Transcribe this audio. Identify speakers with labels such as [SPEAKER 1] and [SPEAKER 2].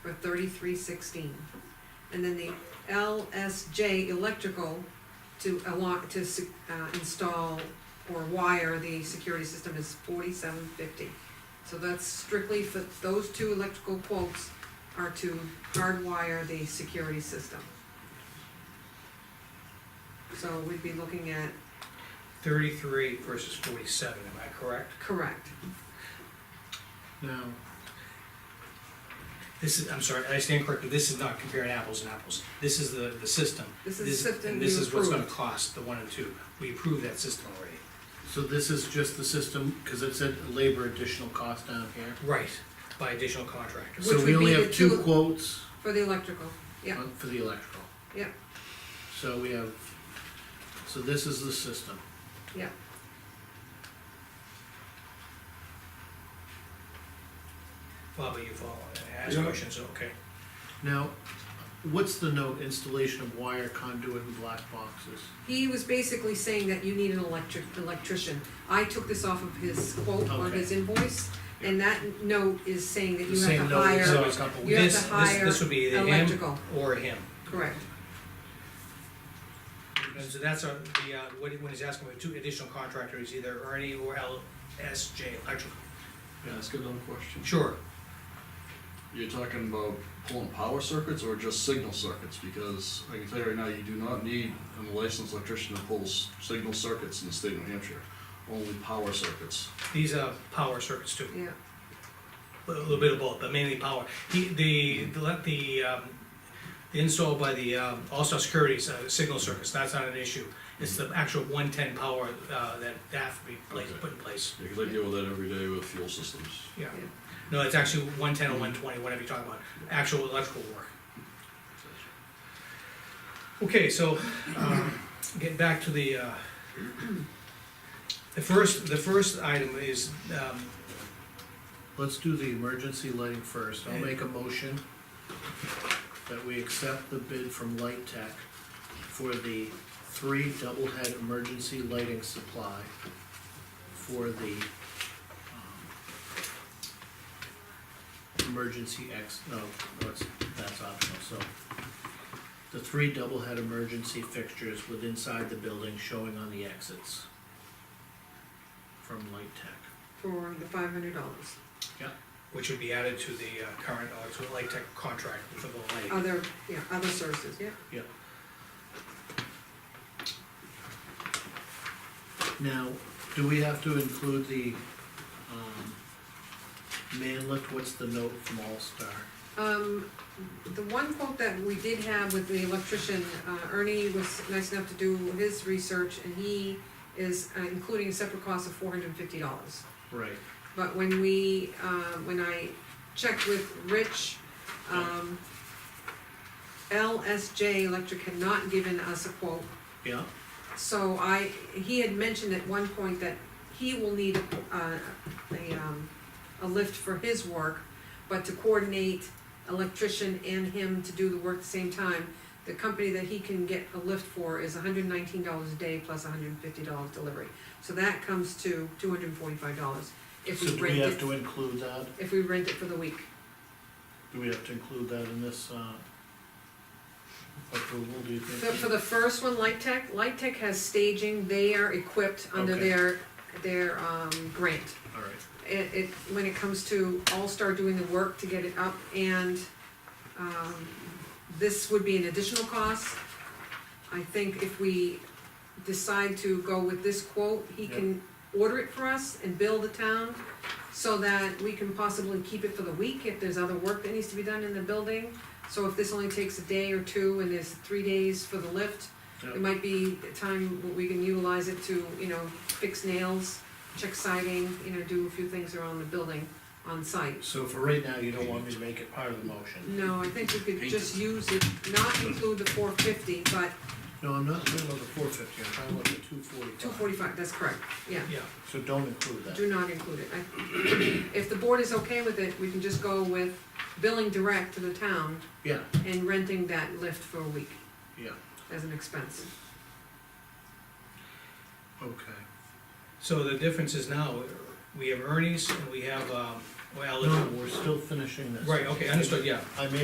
[SPEAKER 1] for thirty-three sixteen. And then the LSJ electrical to along, to se- uh, install or wire the security system is forty-seven fifty. So that's strictly for, those two electrical quotes are to hardwire the security system. So we'd be looking at,
[SPEAKER 2] Thirty-three versus forty-seven, am I correct?
[SPEAKER 1] correct,
[SPEAKER 2] No. This is, I'm sorry, I stand corrected, this is not comparing apples and apples, this is the, the system.
[SPEAKER 1] This is the system
[SPEAKER 2] And this
[SPEAKER 1] you
[SPEAKER 2] is what's gonna
[SPEAKER 1] approved.
[SPEAKER 2] cost, the one and two, we approved that system already.
[SPEAKER 3] So this is just the system, cause it said labor additional cost down here.
[SPEAKER 2] Right. By additional contractors.
[SPEAKER 1] Which
[SPEAKER 3] So we
[SPEAKER 1] would
[SPEAKER 3] only
[SPEAKER 1] be the
[SPEAKER 3] have two
[SPEAKER 1] two-
[SPEAKER 3] quotes
[SPEAKER 1] for the electrical, yeah,
[SPEAKER 3] on- for the electrical.
[SPEAKER 1] yeah,
[SPEAKER 3] So we have, so this is the system.
[SPEAKER 1] yeah.
[SPEAKER 2] Bob, you follow, ask
[SPEAKER 4] Yeah.
[SPEAKER 2] questions, okay.
[SPEAKER 3] Now, what's the note, installation of wire conduit and black boxes?
[SPEAKER 1] He was basically saying that you need an electric, electrician. I took this off of his quote on
[SPEAKER 3] Okay.
[SPEAKER 1] his invoice, and that note is saying that
[SPEAKER 3] The
[SPEAKER 1] you have
[SPEAKER 3] same
[SPEAKER 1] to
[SPEAKER 3] note is
[SPEAKER 1] hire,
[SPEAKER 3] on a couple.
[SPEAKER 1] you have
[SPEAKER 2] This-
[SPEAKER 1] to
[SPEAKER 2] this-
[SPEAKER 1] hire
[SPEAKER 2] This would be either him
[SPEAKER 1] electrical.
[SPEAKER 2] or him.
[SPEAKER 1] correct,
[SPEAKER 2] And so that's a, the, uh, what, he- when he's asking for two additional contractors, either Ernie or LSJ Electrical.
[SPEAKER 4] Can I ask another question?
[SPEAKER 2] Sure,
[SPEAKER 4] You're talking about pulling power circuits or just signal circuits? Because I can tell you right now, you do not need a licensed electrician to pull s- signal circuits in the state of New Hampshire, only power circuits.
[SPEAKER 2] these are power circuits too.
[SPEAKER 1] yeah.
[SPEAKER 2] a little bit of both, but mainly power. He, the, the, let the, um, the install by the, um, All-Star Securities, uh, signal circuits, that's not an issue. It's the actual one-ten power, uh, that, that has to be placed,
[SPEAKER 4] Okay.
[SPEAKER 2] put in place,
[SPEAKER 4] Because I deal with that every day with fuel systems.
[SPEAKER 2] yeah.
[SPEAKER 1] Yeah.
[SPEAKER 2] No, it's actually one-ten or one-twenty, whatever you're talking about, actual electrical work. Okay, so, um, get back to the, uh, the first, the first item is, um,
[SPEAKER 3] Let's do the emergency lighting first. I'll make a motion that we accept the bid from Light Tech for the three double head emergency lighting supply for the um, emergency ex, no, that's, that's optional, so. The three double head emergency fixtures with inside the building showing on the exits from Light Tech.
[SPEAKER 1] For the five hundred dollars.
[SPEAKER 2] which would be added to the uh, current electric light tech contract with the light.
[SPEAKER 1] Other, yeah, other sources, yeah.
[SPEAKER 3] Yep. Now, do we have to include the, um, man lift, what's the note from All Star?
[SPEAKER 1] Um, the one quote that we did have with the electrician, uh, Ernie was nice enough to do his research, and he is uh, including a separate cost of four hundred and fifty dollars.
[SPEAKER 3] Right.
[SPEAKER 1] But when we, uh, when I checked with Rich, um, LSJ Electric had not given us a quote.
[SPEAKER 3] Yeah,
[SPEAKER 1] So I, he had mentioned at one point that he will need, uh, a, um, a lift for his work, but to coordinate electrician and him to do the work at the same time, the company that he can get a lift for is hundred and nineteen dollars a day plus hundred and fifty dollars delivery. So that comes to two hundred and forty-five dollars if
[SPEAKER 3] so
[SPEAKER 1] we
[SPEAKER 3] do we
[SPEAKER 1] rent
[SPEAKER 3] have to
[SPEAKER 1] it,
[SPEAKER 3] include that,
[SPEAKER 1] if we rent it for the week.
[SPEAKER 3] do we have to include that in this, uh, approval, do you
[SPEAKER 1] So
[SPEAKER 3] think?
[SPEAKER 1] for the first one, Light Tech, Light Tech has staging, they are equipped under
[SPEAKER 3] Okay.
[SPEAKER 1] their, their, um, grant.
[SPEAKER 3] Alright,
[SPEAKER 1] it, it, when it comes to All-Star doing the work to get it up, and, um, this would be an additional cost. I think if we decide to go with this quote, he can order it for us and bill the town, so that we can possibly keep it for the week if there's other work that needs to be done in the building. So if this only takes a day or two, and there's three days for the lift,
[SPEAKER 3] Yep.
[SPEAKER 1] it might be a time where we can utilize it to, you know, fix nails, check siding, you know, do a few things around the building on site.
[SPEAKER 3] so for right now, you don't want me to make it part of the motion?
[SPEAKER 1] No, I think we could just use it, not include the four fifty, but
[SPEAKER 3] No, I'm not talking about the four fifty, I'm talking about the two forty-five.
[SPEAKER 1] two forty-five, that's correct, yeah.
[SPEAKER 2] Yeah,
[SPEAKER 3] So don't include that.
[SPEAKER 1] Do not include it. I- If the board is okay with it, we can just go with billing direct to the town
[SPEAKER 3] Yeah,
[SPEAKER 1] and renting that lift for a week
[SPEAKER 3] yeah,
[SPEAKER 1] as an expense.
[SPEAKER 3] okay.
[SPEAKER 2] so the difference is now, we have Ernie's and we have, um,
[SPEAKER 3] Well,
[SPEAKER 2] No, we're still finishing this.
[SPEAKER 3] right, okay, understood, yeah.
[SPEAKER 2] I made